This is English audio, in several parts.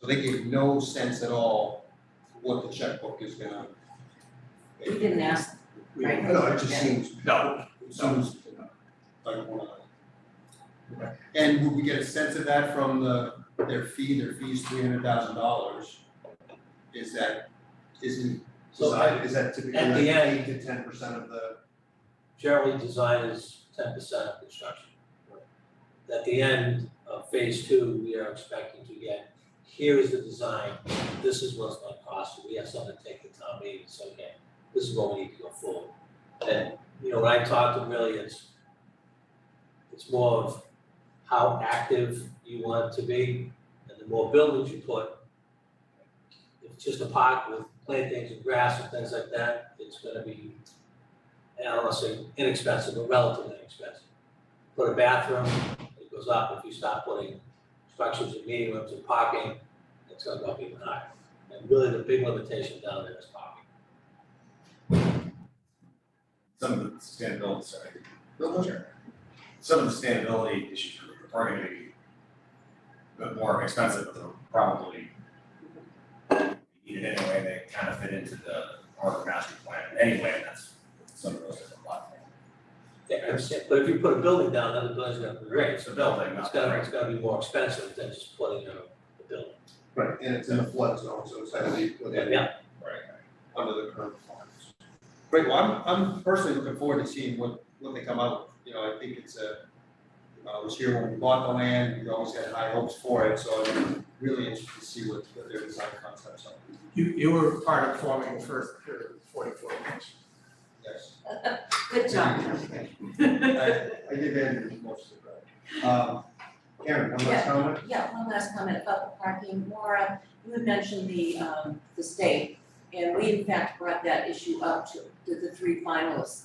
So they gave no sense at all what the checkbook is gonna. We didn't ask, We- right. No, it just seems, No, it seems like one of them. And would we get a sense of that from the, their fee, their fee's three hundred thousand dollars? Is that, isn't, So I, is that typically At the like end. eight to ten percent of the, generally design is ten percent of construction. At the end of phase two, we are expecting to get, here is the design, this is what's gonna cost, we have something to take to town meeting, so okay, this is what we need to go forward. And, you know, when I talk to them, really, it's, it's more of how active you want it to be, and the more buildings you put, if it's just a park with plantings and grass and things like that, it's gonna be and I don't wanna say inexpensive, but relatively inexpensive. Put a bathroom, it goes up, if you stop putting structures and meeting rooms and parking, it's gonna go up even higher. And really, the big limitation down there is parking. some of the sustainability, sorry. Sure. Some of the sustainability issues are gonna be a bit more expensive, but they're probably needed anyway, they kind of fit into the harbor master plan anyway, and that's some of those are a lot. Yeah, I understand, but if you put a building down, then the building's gonna be great, It's a building, not it's gonna, it's gonna be more expensive than just putting a, a building. and it's in the flood zone, so it's heavily within Yeah, under the current plans. Great, well, I'm, I'm personally looking forward to seeing what, what they come up with, you know, I think it's a, I was here when we bought the land, we always had high hopes for it, so I'm really interested to see what, what their design concepts are, You, you were part of forming the first uh, forty-four commission. yes. good job. I, I give Andrew most of the credit. Um, Karen, one last Yeah. comment? Yeah, one last comment about the parking. Laura, you had mentioned the, um, the state, and we in fact brought that issue up to, to the three finalists.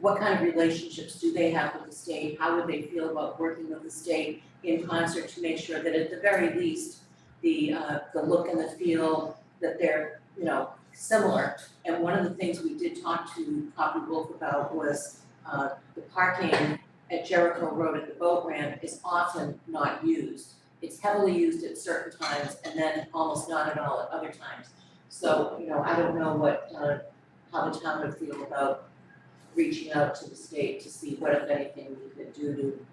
What kind of relationships do they have with the state? How would they feel about working with the state in concert to make sure that at the very least, the, uh, the look and the feel, that they're, you know, similar? And one of the things we did talk to Copy Wolf about was, uh, the parking at Jericho Road at the boat ramp is often not used. It's heavily used at certain times and then almost not at all at other times. So, you know, I don't know what, uh, how the town would feel about reaching out to the state to see what, if anything, we could do to,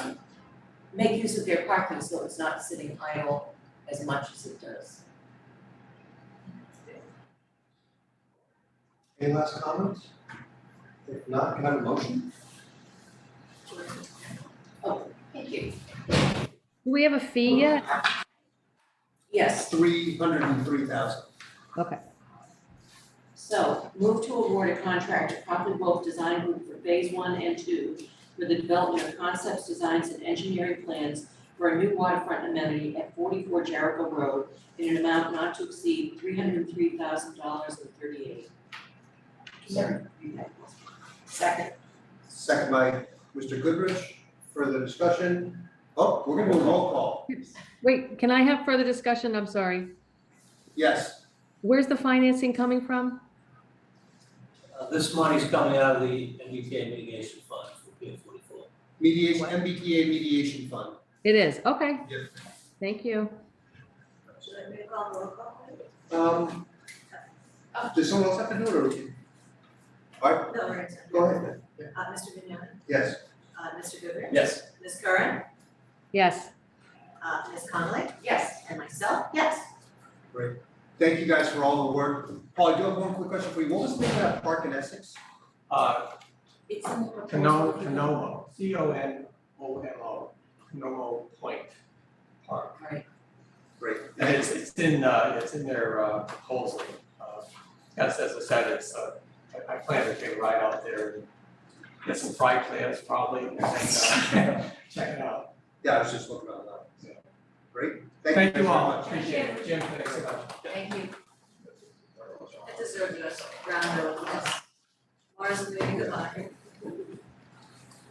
um, make use of their parking so it's not sitting idle as much as it does. any last comments? If not, can I have a motion? Oh, thank you. Do we have a fee yet? Yes, Three hundred and three thousand. So, move to award a contract to Procter Wolf Design Group for Phase One and Two for the development of concepts, designs, and engineering plans for a new waterfront amenity at forty-four Jericho Road in an amount not to exceed three hundred and three thousand dollars and thirty-eight. Sorry. Second. Second by Mr. Goodrich, further discussion? Oh, we're gonna do a roll call, Wait, can I have further discussion? I'm sorry. yes, Where's the financing coming from? Uh, this money's coming out of the MBTA mitigation fund for P forty-four. mediation, MBTA mediation fund. It is, okay, Yes. thank you. Um, does someone else have to do it, or we can? Alright, No, we're in. go ahead then. Uh, Mr. Vignani, Yes, uh, Mr. Goodrich, Yes. Ms. Curran, Yes, uh, Ms. Conley, Yes. and myself, yes. thank you guys for all the work. Paul, I do have one quick question for you, what was the name of that park in Essex? Uh, It's in the proposal. Cano, Canomo, C O N O M O, Canomo Point Park. Right. Great. And it's, it's in, uh, it's in their uh, proposal. Uh, As, as I said, it's, uh, I, I plan to take a ride out there and get some fried clams probably and, uh, check it out. Yeah, I was just looking at that. Yeah. Great, Thank guys very you all, much. appreciate it. Jim, thanks so much. Thank you. That deserves a round of applause. Laura's doing good luck.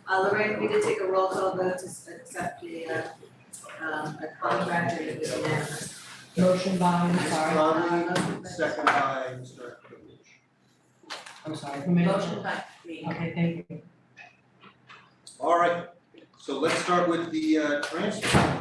Uh, Lorraine, we did take a roll call vote to s- accept the, uh, um, a contract and it was unanimous. Motion by, Ms. Conley, second by Mr. Goodrich. I'm sorry, Motion by me. Okay, thank you. All right, so let's start with the uh, transfer.